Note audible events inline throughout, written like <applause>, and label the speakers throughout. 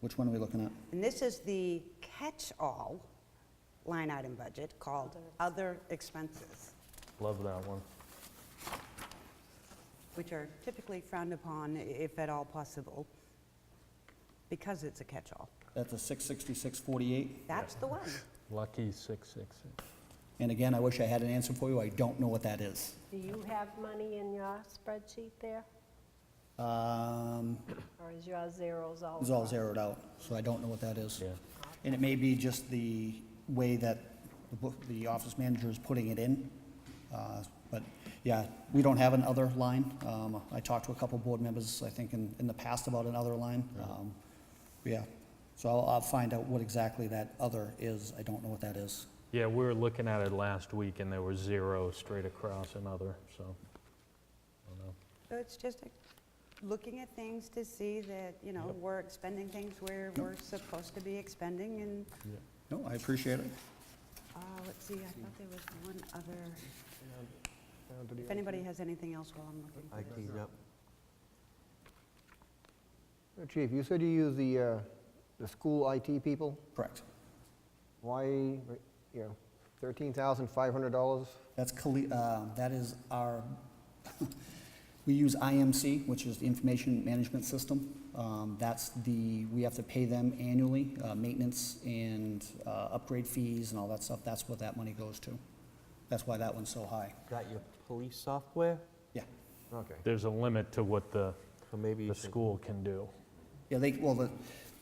Speaker 1: Which one are we looking at?
Speaker 2: And this is the catch-all line item budget called other expenses,
Speaker 3: Love that one.
Speaker 2: which are typically frowned upon, i- if at all possible, because it's a catch-all.
Speaker 1: That's a 66648.
Speaker 2: That's the <laughs> one.
Speaker 3: Lucky 666.
Speaker 1: And again, I wish I had an answer for you. I don't know what that is.
Speaker 4: Do you have money in your spreadsheet there?
Speaker 1: Um,
Speaker 4: Or is your zeros all?
Speaker 1: It's all
Speaker 4: across?
Speaker 1: zeroed out, so I don't know what that is.
Speaker 3: Yeah.
Speaker 1: And it may be just the way that the book- the office manager is putting it in. Uh, But, yeah, we don't have another line. Um, I talked to a couple board members, I think, in, in the past about another line. Um, Yeah, so I'll, I'll find out what exactly that other is. I don't know what that is.
Speaker 3: Yeah, we were looking at it last week, and there was zero straight across another, so. I don't know.
Speaker 2: So it's just like looking at things to see that, you know,
Speaker 3: Yep.
Speaker 2: we're expending things where we're supposed to be expending, and,
Speaker 1: No, I appreciate it.
Speaker 2: uh, let's see, I thought there was one other, if anybody has anything else while I'm looking
Speaker 5: I
Speaker 2: for this.
Speaker 5: cleaned up.
Speaker 6: Uh, Chief, you said you use the, uh, the school IT people.
Speaker 1: Correct.
Speaker 6: Why, you know, $13,500?
Speaker 1: That's, colle- uh, that is our, <laughs> we use IMC, which is the Information Management System. Um, That's the, we have to pay them annually, uh, maintenance and uh, upgrade fees and all that stuff. That's what that money goes to. That's why that one's so high.
Speaker 5: Got your police software?
Speaker 1: Yeah.
Speaker 5: Okay,
Speaker 3: There's a limit to what the,
Speaker 5: so maybe you
Speaker 3: the
Speaker 5: should-
Speaker 3: school can do.
Speaker 1: Yeah, they, well, the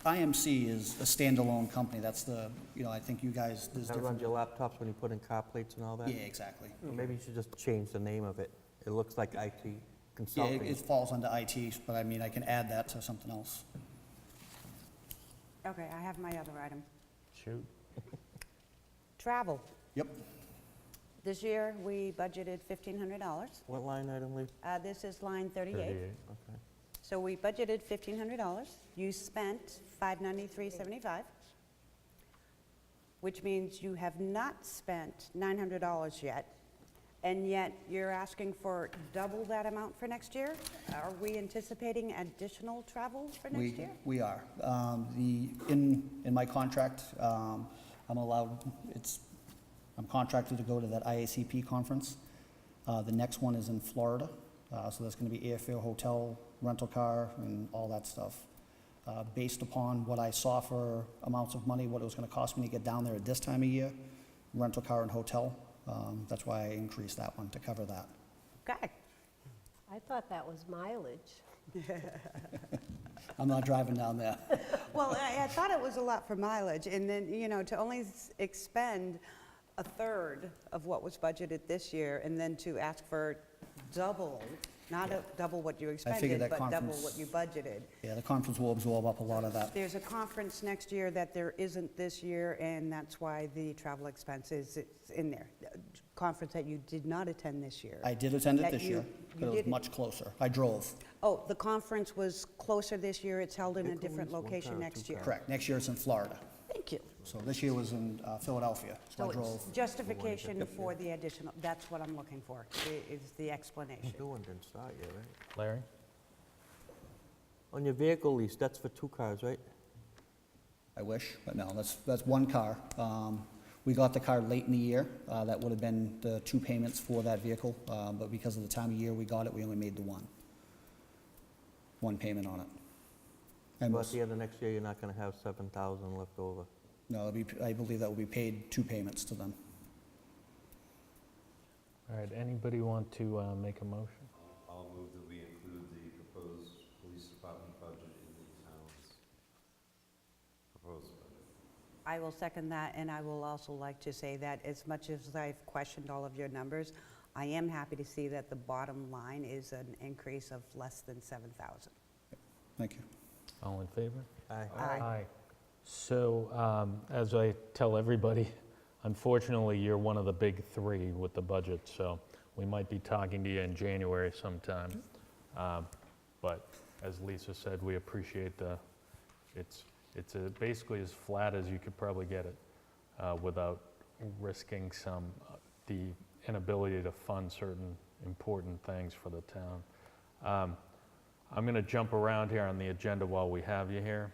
Speaker 1: IMC is a standalone company. That's the, you know, I think you guys, there's
Speaker 5: That runs
Speaker 1: different.
Speaker 5: your laptops when you put in car plates and all that?
Speaker 1: Yeah, exactly.
Speaker 5: Or Maybe you should just change the name of it. It looks like IT
Speaker 1: Yeah, it-
Speaker 5: consulting.
Speaker 1: it falls under IT, but I mean, I can add that to something else.
Speaker 2: Okay, I have my other item.
Speaker 3: Shoot.
Speaker 2: Travel.
Speaker 1: Yep,
Speaker 2: This year, we budgeted $1,500.
Speaker 5: What line item, Lee?
Speaker 2: Uh, This is line 38.
Speaker 3: 38.
Speaker 5: Okay.
Speaker 2: So we budgeted $1,500. You spent $593.75, which means you have not spent $900 yet, and yet you're asking for double that amount for next year? Are we anticipating additional travel for next
Speaker 1: We,
Speaker 2: year?
Speaker 1: we are. Um, The, in, in my contract, um, I'm allowed, it's, I'm contracted to go to that IACP conference. Uh, The next one is in Florida, uh, so that's going to be airfare, hotel, rental car, and all that stuff. Uh, Based upon what I saw for amounts of money, what it was going to cost me to get down there at this time of year, rental car and hotel, um, that's why I increased that one to cover that.
Speaker 2: Okay.
Speaker 4: I thought that was mileage.
Speaker 1: I'm not driving down
Speaker 2: <laughs>
Speaker 1: there.
Speaker 2: Well, I, I thought it was a lot for mileage, and then, you know, to only s- expend a third of what was budgeted this year, and then to ask for double, not a, double what you expended,
Speaker 1: that
Speaker 2: but double
Speaker 1: conference-
Speaker 2: what you budgeted.
Speaker 1: Yeah, the conference will absorb up a lot of that.
Speaker 2: There's a conference next year that there isn't this year, and that's why the travel expense is, it's in there. Uh, Conference that you did not attend this year.
Speaker 1: I did attend it
Speaker 2: That
Speaker 1: this
Speaker 2: you-
Speaker 1: year,
Speaker 2: you
Speaker 1: but it was
Speaker 2: didn't-
Speaker 1: much closer. I drove.
Speaker 2: Oh, the conference was closer this year, it's held in a
Speaker 5: Pickles,
Speaker 2: different
Speaker 5: one
Speaker 2: location
Speaker 5: pound,
Speaker 2: next
Speaker 5: two
Speaker 2: year.
Speaker 1: Correct. Next year it's in Florida.
Speaker 2: Thank you.
Speaker 1: So this year was in uh, Philadelphia, so
Speaker 2: So
Speaker 1: I drove.
Speaker 2: it's justification for the additional, that's what I'm looking for, i- is the explanation.
Speaker 5: New one didn't start yet, right?
Speaker 3: Larry?
Speaker 5: On your vehicle lease, that's for two cars, right?
Speaker 1: I wish, but no, that's, that's one car. Um, We got the car late in the year. Uh, That would have been the two payments for that vehicle, uh, but because of the time of year we got it, we only made the one. One payment on it. And
Speaker 5: But at the end of next year, you're not going to have 7,000 left over.
Speaker 1: no, it'll be- I believe that will be paid two payments to them.
Speaker 3: All right, anybody want to uh, make a motion?
Speaker 7: I'll move that we include the proposed police department budget in the town's proposed budget.
Speaker 2: I will second that, and I will also like to say that as much as I've questioned all of your numbers, I am happy to see that the bottom line is an increase of less than 7,000.
Speaker 1: Thank you.
Speaker 3: All in favor?
Speaker 5: Aye.
Speaker 3: Aye. So, um, as I tell everybody, <laughs> unfortunately, you're one of the big three with the budget, so we might be talking to you in January sometime. Um, But as Lisa said, we appreciate the, it's, it's uh, basically as flat as you could probably get it uh, without risking some, uh, the inability to fund certain important things for the town. Um, I'm going to jump around here on the agenda while we have you here.